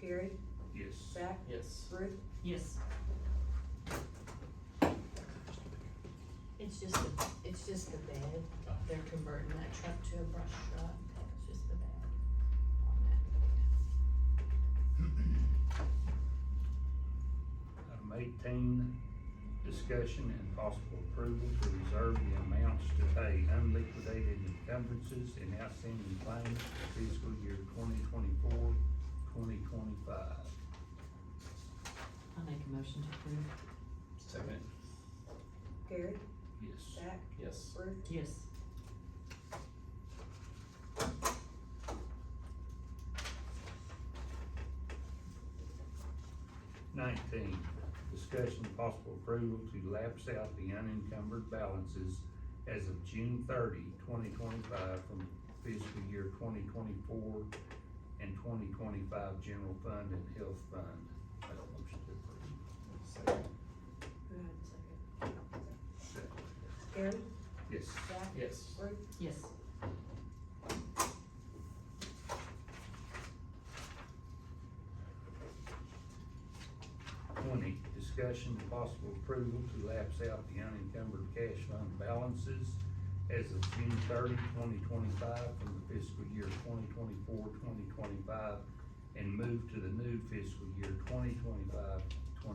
Gary, Yes. Zach, Yes. Ruth, Yes. It's just, the- it's just the bed, they're converting that truck to a brush truck, it's just the bed. on that. Item eighteen, discussion and possible approval to reserve the amounts to pay unliquidated encumbrances and outstanding claims for fiscal year 2024-2025. I'll make a motion to approve. Second. Gary, Yes. Zach, Yes. Ruth, Yes. Nineteen, discussion and possible approval to lapse out the unencumbered balances as of June 30, 2025, from fiscal year twenty twenty-four and twenty twenty-five general fund and health fund. Make a motion to approve. Second. Who had the second? Second. Gary, Yes. Zach, Yes. Ruth, Yes. Twenty, discussion and possible approval to lapse out the unencumbered cash fund balances as of June 30, 2025, from the fiscal year 2024-2025, and move to the new fiscal year 2025-2026.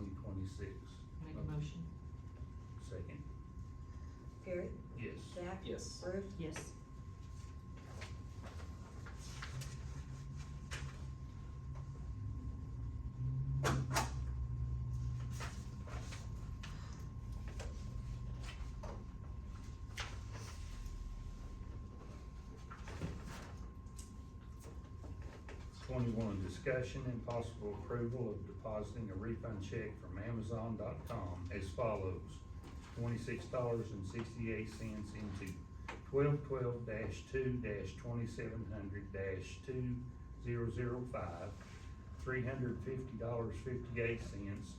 Make a motion. Second. Gary, Yes. Zach, Yes. Ruth, Yes. Twenty-one, discussion and possible approval of depositing a refund check from Amazon.com as follows. Twenty-six dollars and sixty-eight cents into twelve twelve two twenty-seven hundred two zero zero five. Three hundred fifty dollars fifty-eight cents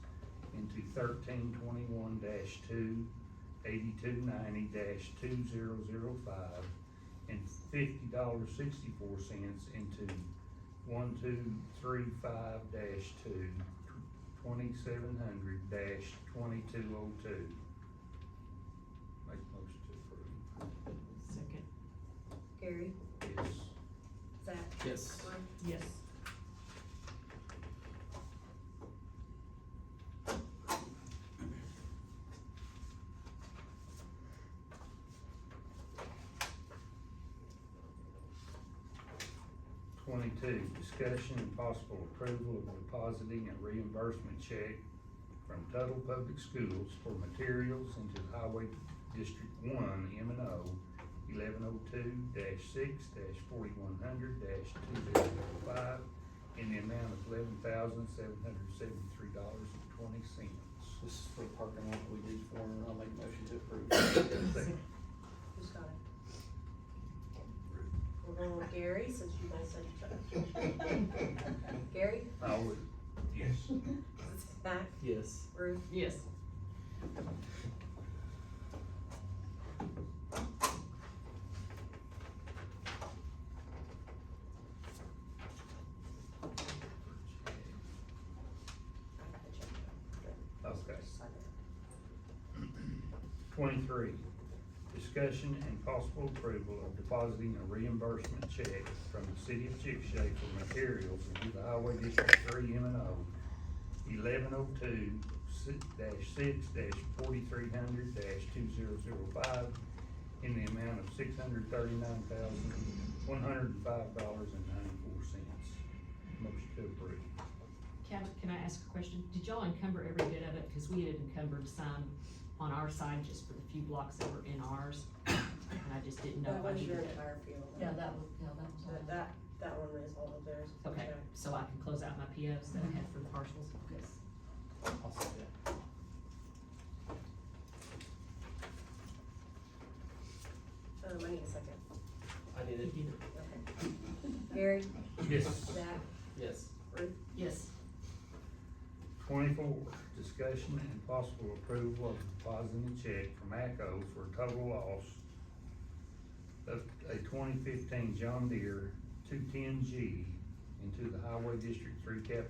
into thirteen twenty-one two eighty-two ninety two zero zero five. And fifty dollars sixty-four cents into one, two, three, five, dash two, twenty-seven hundred, dash, twenty-two oh two. Make motion to Second. Gary, approve. Yes. Zach, Yes. Ruth, Yes. Twenty-two, discussion and possible approval of depositing a reimbursement check from Tuttle Public Schools for materials into Highway District One, M and O, eleven oh two dash six dash forty-one hundred dash two zero zero five, in the amount of eleven thousand seven hundred seventy-three dollars and twenty cents. This is for the parking lot we did for, I'll make a motion to approve. Second. who's got it? We're going with Gary, since you both said each other. Gary, I would, yes. Zach, Yes. Ruth, Yes. I got the check. Okay. Sign it. Twenty-three, discussion and possible approval of depositing a reimbursement check from the city of Chickasha for materials into the Highway District Three M and O, eleven oh two, dash six, dash forty-three hundred, dash two zero zero five, in the amount of six hundred thirty-nine thousand, one hundred and five dollars and ninety-four cents. Motion to approve. Can, can I ask a question? Did y'all encumber every bit of it? Cause we had encumbered some on our side just for the few blocks that were in ours. And I just didn't know That if I was needed your it. entire field. Yeah, that was, yeah, that was. all. But that, that one is all of theirs. Okay, so I can close out my POs that I had for the parcels. Yes. I'll say that. Um, I need a second. I did You it. did it. Okay. Gary, Yes. Zach, Yes. Ruth, Yes. Twenty-four, discussion and possible approval of depositing a check from ACO for a total loss of a twenty fifteen John Deere two ten G into the Highway District Three capital